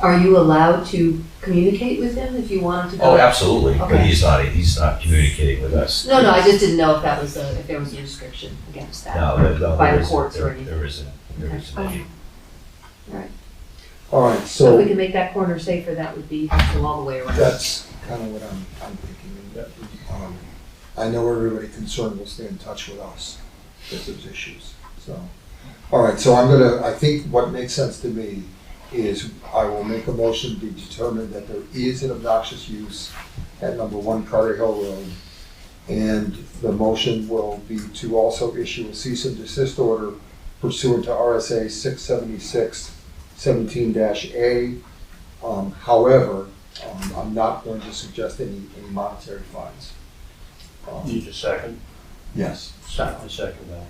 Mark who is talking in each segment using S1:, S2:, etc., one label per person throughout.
S1: Are you allowed to communicate with him if you wanted to go?
S2: Oh, absolutely, but
S1: Okay.
S2: he's not, he's not communicating with us.
S1: No, no, I just didn't know if that was, a- if there was a restriction against that.
S2: No, there- no,
S1: By
S2: there
S1: the
S2: isn't.
S1: courts or
S2: There-
S1: anything.
S2: There isn't, there isn't
S1: Okay.
S2: any.
S3: All right,
S1: So if we
S3: so
S1: can make that corner safer, that would be helpful all the way around.
S3: that's kind of what I'm, I'm thinking. Um, I know everybody concerned will stay in touch with us if there's issues, so. All right, so I'm gonna, I think what makes sense to me is I will make a motion to determine that there is an obnoxious use at number one Carter Hill Road. And the motion will be to also issue a cease and desist order pursuant to RSA six seventy-six seventeen dash A. Um, however, um, I'm not going to suggest any, any monetary fines. Um,
S4: Need a second?
S3: Yes.
S4: Second, second that.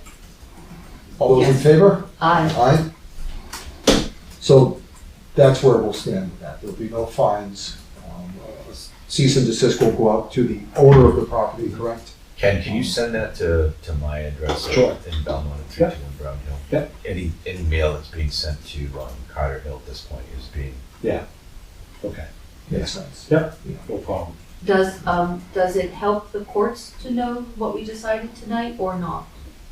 S3: All those in favor?
S1: Aye.
S3: Aye. So that's where we'll stand with that. There'll be no fines. Um, uh, Cease and desist will go out to the owner of the property, correct?
S2: Ken, can you send that to, to my address in
S3: Sure.
S2: in Belmont at three two one Brown Hill?
S4: Yeah.
S2: Any, any mail that's being sent to, um, Carter Hill at this point is being,
S4: Okay,
S3: Makes sense.
S4: no problem.
S1: Does, um, does it help the courts to know what we decided tonight or not?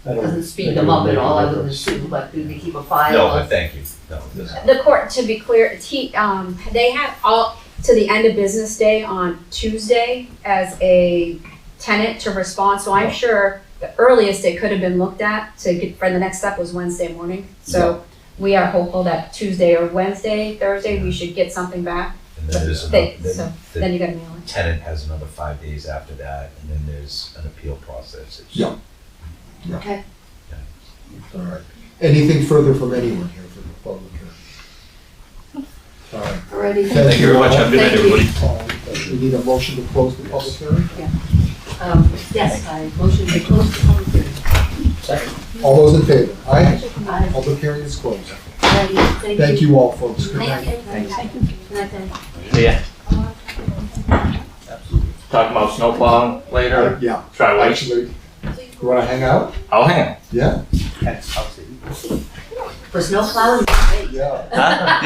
S4: I don't-
S1: Doesn't speed them up at all, I wouldn't
S4: Difference.
S1: assume, but do they keep a file?
S2: no,
S1: of-
S2: but thank you, no, it doesn't.
S5: The court, to be clear, it's he, um, they have all, to the end of business day on Tuesday as a tenant to respond, so I'm sure the earliest it could have been looked at to get, for the next step was Wednesday morning. So we are hopeful that Tuesday or Wednesday, Thursday, we should get something back,
S2: And then there's another,
S5: They- so
S2: then
S5: then
S2: the
S5: you gotta mail it.
S2: tenant has another five days after that, and then there's an appeal process. It's-
S3: Yeah.
S1: Okay.
S3: All right. Anything further from anyone here for the public hearing? All right.
S1: Already.
S2: Thank you very much, have a good night,
S1: Thank you.
S2: everybody.
S3: Um, We need a motion to close the public hearing?
S1: Um, yes, I motion to close the public hearing.
S3: All those in favor? Aye.
S1: Aye.
S3: Public hearing is closed.
S1: Already. Thank you.
S3: Thank you all, folks. Good night.
S1: Thank you. Thank you. Good night.
S6: Yeah. Talking about snowplowing later.
S3: Yeah,
S6: Try wait.
S3: actually, you wanna hang out?
S6: I'll hang.
S3: Yeah?
S1: For snow plowing,
S3: Yeah.
S6: Huh?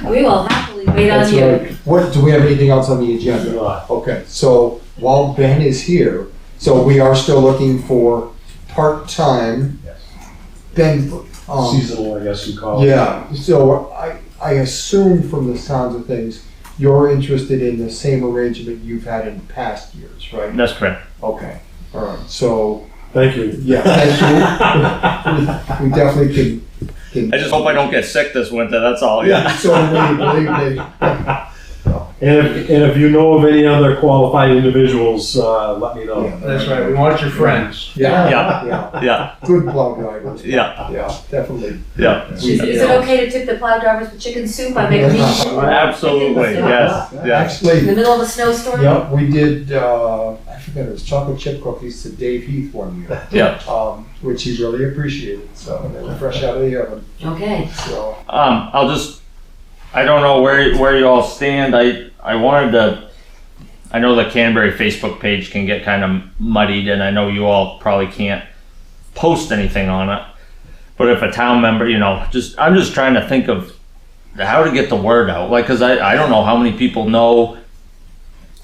S6: Yeah.
S1: we will happily wait on
S3: That's
S1: you.
S3: right. What, do we have anything else on the agenda?
S4: Good luck.
S3: Okay, so while Ben is here, so we are still looking for part-time.
S2: Yes.
S3: Ben, um,
S4: Seasonal, I guess you call it.
S3: yeah, so I, I assume from the sounds of things, you're interested in the same arrangement you've had in past years, right?
S6: That's correct.
S3: Okay, all right, so,
S4: Thank you.
S3: yeah, thank you. We definitely can, can.
S6: I just hope I don't get sick this winter. That's all. Oh, Yeah.
S3: So, believe me,
S4: And if, and if you know of any other qualified individuals, uh, let me know.
S7: That's right, we want your friends.
S3: yeah,
S6: Yeah.
S3: yeah,
S6: Yeah.
S3: good plow drivers,
S6: Yeah.
S3: yeah, definitely.
S6: Yeah.
S1: Is is it okay to tip the plow drivers with chicken soup? I make a meat
S6: Absolutely. Yes. Yes.
S3: Actually,
S1: in the middle of a snowstorm?
S3: Yep, we did, uh, I forget, it was chocolate chip cookies to Dave Heath one year.
S6: Yeah.
S3: Um, which he really appreciated, so they were fresh out of the oven,
S1: Okay.
S3: so.
S6: Um, I'll just, I don't know where, where you all stand. I, I wanted to, I know the Canterbury Facebook page can get kind of muddied and I know you all probably can't post anything on it. But if a town member, you know, just, I'm just trying to think of how to get the word out. Like, cause I, I don't know how many people know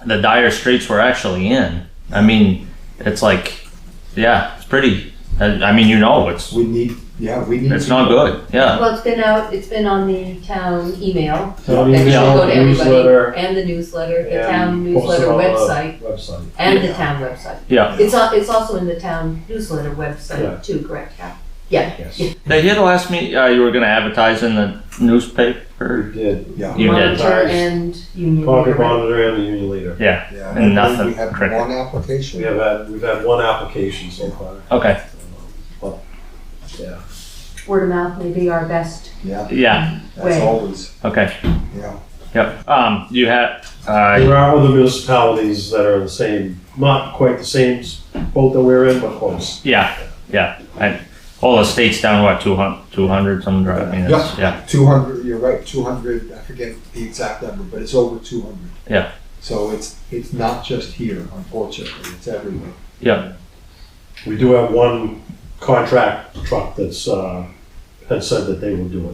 S6: the dire straits we're actually in. I mean, it's like, yeah, it's pretty, I, I mean, you know, it's,
S3: We need, yeah, we need.
S6: it's not good. Yeah.
S1: Well, it's been out, it's been on the town email.
S4: Town
S1: That should
S4: email,
S1: go to everybody.
S4: newsletter,
S1: And the newsletter, the
S4: and
S1: town
S4: post it
S1: newsletter
S4: on the
S1: website,
S4: Website.
S1: and the town website.
S6: Yeah.
S1: It's al- it's also in the town newsletter
S4: Yeah.
S1: website too, correct? Yeah.
S4: Yes,
S1: Yeah.
S4: we
S6: Did you hear the last meet, uh, you were gonna advertise in the newspaper?
S4: did.
S3: Yeah,
S6: You did.
S1: Monitor and union.
S4: Concord
S1: leader.
S4: Monitor and the Union Leader.
S3: yeah.
S6: And nothing,
S3: We had
S6: cricket.
S3: one
S4: We
S3: application.
S4: have had, we've had one application so far.
S6: Okay,
S1: Word of mouth may be our best
S3: Yeah,
S6: yeah,
S3: that's
S1: Right.
S3: always,
S6: okay,
S3: yeah.
S6: yep. Um, you had, uh,
S4: There are other municipalities that are the same, not quite the same boat that we're in, but close.
S6: yeah, yeah. And all the states down, what, two hun- two hundred, some, I mean, it's, yeah,
S3: Two hundred, you're right, two hundred, I forget the exact number, but it's over two hundred.
S6: Yeah.
S3: So it's, it's not just here, unfortunately, it's everywhere.
S6: yeah,
S4: We do have one contract truck that's, uh, had said that they will do it.